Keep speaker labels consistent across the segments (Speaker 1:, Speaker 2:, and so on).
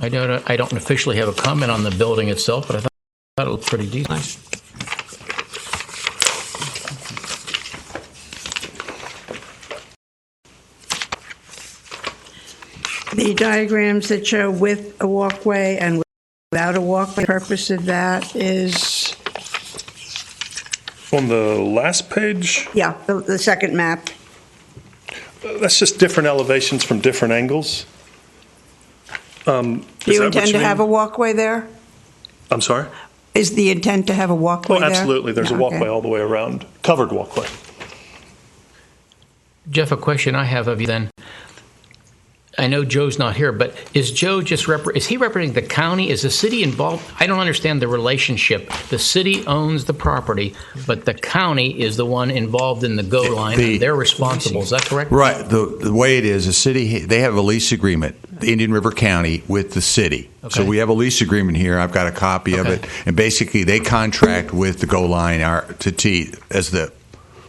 Speaker 1: I don't, I don't officially have a comment on the building itself, but I thought thought it looked pretty decent.
Speaker 2: The diagrams that show with a walkway and without a walkway, the purpose of that is,
Speaker 3: On the last page,
Speaker 2: yeah, the, the second map.
Speaker 3: uh, that's just different elevations from different angles. Um,
Speaker 2: Do you
Speaker 3: is that what
Speaker 2: intend to
Speaker 3: mean?
Speaker 2: have a walkway there?
Speaker 3: I'm sorry?
Speaker 2: Is the intent to have a walkway
Speaker 3: Oh,
Speaker 2: there?
Speaker 3: absolutely, there's a
Speaker 2: Yeah, okay.
Speaker 3: walkway all the way around, covered walkway.
Speaker 1: Jeff, a question I have of you then. I know Joe's not here, but is Joe just repre- is he representing the county? Is the city involved? I don't understand the relationship. The city owns the property, but the county is the one involved in the go line.
Speaker 4: the-
Speaker 1: and They're responsible. Is that correct?
Speaker 4: Right. The, the way it is, the city, they have a lease agreement, Indian River County, with the city.
Speaker 1: Okay.
Speaker 4: So we have a lease agreement here. I've got a copy of
Speaker 1: Okay.
Speaker 4: it. And basically, they contract with the Go Line R to T as the,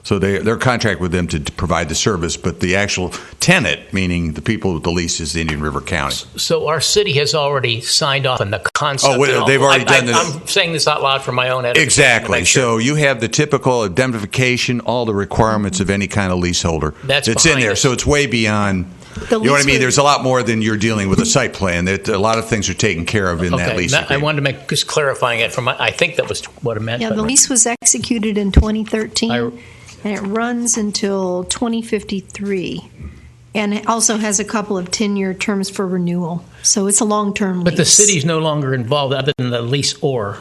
Speaker 4: so they, their contract with them to provide the service, but the actual tenant, meaning the people with the lease, is the Indian River County.
Speaker 1: So our city has already signed off on the concept.
Speaker 4: Oh, wait,
Speaker 1: and all.
Speaker 4: they've already
Speaker 1: I- I-
Speaker 4: done this.
Speaker 1: I'm saying this out loud for my own edification. to
Speaker 4: Exactly.
Speaker 1: make sure.
Speaker 4: So you have the typical indemnification, all the requirements of any kind of leaseholder.
Speaker 1: That's
Speaker 4: it's in
Speaker 1: behind
Speaker 4: there.
Speaker 1: us.
Speaker 4: So it's way beyond. you know what I mean? There's a lot more than you're dealing with a site plan. There, a lot of things are taken care of in that
Speaker 1: Okay,
Speaker 4: lease.
Speaker 1: that- I
Speaker 4: agreement.
Speaker 1: wanted to make, just clarifying it from, my- I think that was what it meant.
Speaker 5: Yeah,
Speaker 1: but-
Speaker 5: the lease was executed in 2013,
Speaker 1: I-
Speaker 5: and it runs until 2053, and it also has a couple of 10-year terms for renewal, so it's a long-term lease.
Speaker 1: But the city's no longer involved other than the lease or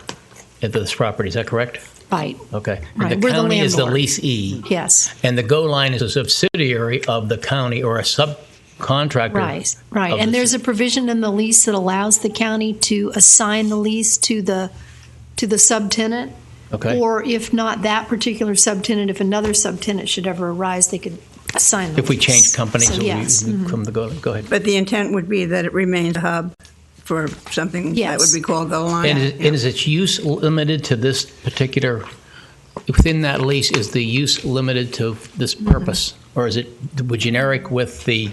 Speaker 1: at this property, is that correct?
Speaker 5: Right,
Speaker 1: Okay.
Speaker 5: Right,
Speaker 1: And the
Speaker 5: we're the
Speaker 1: county is the
Speaker 5: landlord.
Speaker 1: leasee,
Speaker 5: yes,
Speaker 1: and the go line is a subsidiary of the county or a subcontractor.
Speaker 5: right, right.
Speaker 1: Of the
Speaker 5: And there's a provision in the lease that allows the county to assign the lease to the, to the subtenant,
Speaker 1: Okay.
Speaker 5: or if not that particular subtenant, if another subtenant should ever arise, they could assign the
Speaker 1: If we
Speaker 5: lease.
Speaker 1: change companies,
Speaker 5: So,
Speaker 1: we
Speaker 5: yes. mm-hmm.
Speaker 1: we come to go, go ahead.
Speaker 2: But the intent would be that it remains a hub for something that would
Speaker 5: Yes.
Speaker 2: be called the line.
Speaker 1: And is, and is its use limited to this particular, within that lease, is the use limited to this purpose? Or is it generic with the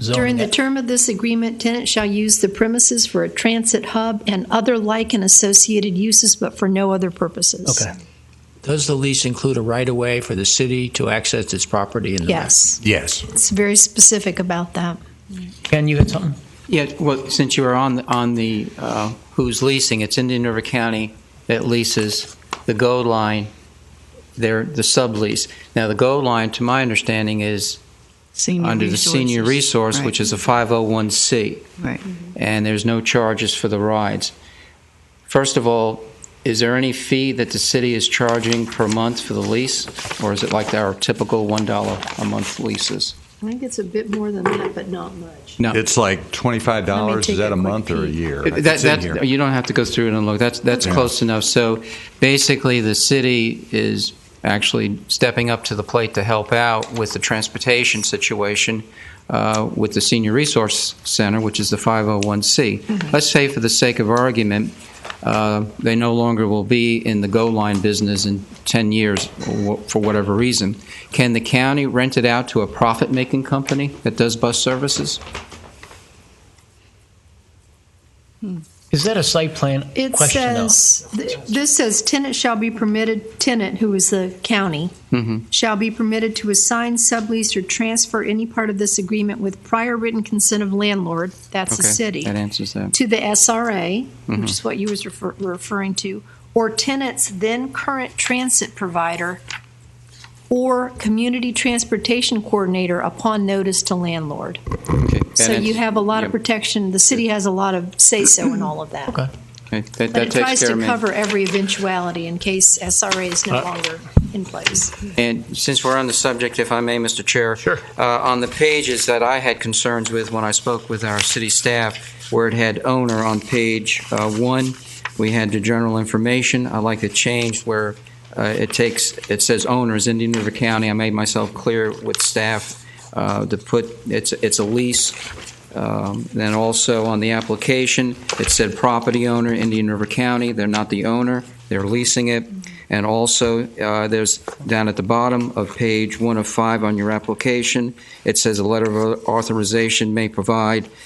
Speaker 1: zoning?
Speaker 5: Mm-hmm. During the term of this agreement, tenant shall use the premises for a transit hub and other like and associated uses, but for no other purposes.
Speaker 1: Okay.
Speaker 6: Does the lease include a right-of-way for the city to access its property in the back?
Speaker 5: Yes,
Speaker 4: yes.
Speaker 5: it's very specific about that.
Speaker 1: Ken, you had something?
Speaker 7: Yeah, well, since you were on, the- on the, uh, who's leasing, it's Indian River County that leases the GO line, they're the sublease. Now, the GO line, to my understanding, is
Speaker 8: Senior
Speaker 7: under the senior resource, which is a 501C.
Speaker 8: Right.
Speaker 7: And there's no charges for the rides. First of all, is there any fee that the city is charging per month for the lease? Or is it like our typical $1 a month leases?
Speaker 5: I think it's a bit more than that, but not much.
Speaker 7: No.
Speaker 4: It's like twenty-five
Speaker 5: Let me
Speaker 4: dollars.
Speaker 5: take
Speaker 4: Is that
Speaker 5: a
Speaker 4: a
Speaker 5: quick
Speaker 4: month or a
Speaker 5: peek.
Speaker 4: year?
Speaker 7: That,
Speaker 4: It's in
Speaker 7: that's-
Speaker 4: here.
Speaker 7: you don't have to go through it and look. That's that's
Speaker 4: Yeah.
Speaker 7: close enough. So basically, the city is actually stepping up to the plate to help out with the transportation situation uh, with the senior resource center, which is the 501c. Let's say, for the sake of argument, uh, they no longer will be in the go line business in 10 years or wh- for whatever reason. Can the county rent it out to a profit making company that does bus services?
Speaker 1: Is that a site plan
Speaker 5: It
Speaker 1: question though?
Speaker 5: says, th- this says tenant shall be permitted, tenant who is the county,
Speaker 7: Mm-hmm.
Speaker 5: shall be permitted to assign, sublease, or transfer any part of this agreement with prior written consent of landlord, that's the
Speaker 7: okay.
Speaker 5: city.
Speaker 7: That answers that.
Speaker 5: to the SRA,
Speaker 7: Mm-hmm.
Speaker 5: which is what you was refer- referring to, or tenant's then current transit provider or community transportation coordinator upon notice to landlord.
Speaker 7: Okay. That
Speaker 5: So you
Speaker 7: answers-
Speaker 5: have a lot of
Speaker 7: Yep.
Speaker 5: protection, the city has a lot of say-so in all of that.
Speaker 1: Okay.
Speaker 7: Okay, That,
Speaker 5: But
Speaker 7: that
Speaker 5: it
Speaker 7: takes
Speaker 5: tries
Speaker 7: care
Speaker 5: to
Speaker 7: of me.
Speaker 5: cover every eventuality in case SRA is no
Speaker 1: Uh,
Speaker 5: longer in place.
Speaker 7: And since we're on the subject, if I may, Mr. Chair.
Speaker 1: Sure.
Speaker 7: uh, On the pages that I had concerns with when I spoke with our city staff, where it had owner on page uh, one, we had the general information. I like the change where uh, it takes, it says owners, Indian River County. I made myself clear with staff uh, to put, it's, it's a lease. Um, Then also on the application, it said property owner, Indian River County. They're not the owner, they're leasing it. And also, uh, there's down at the bottom of page one of five on your application, it says a letter of authorization may provide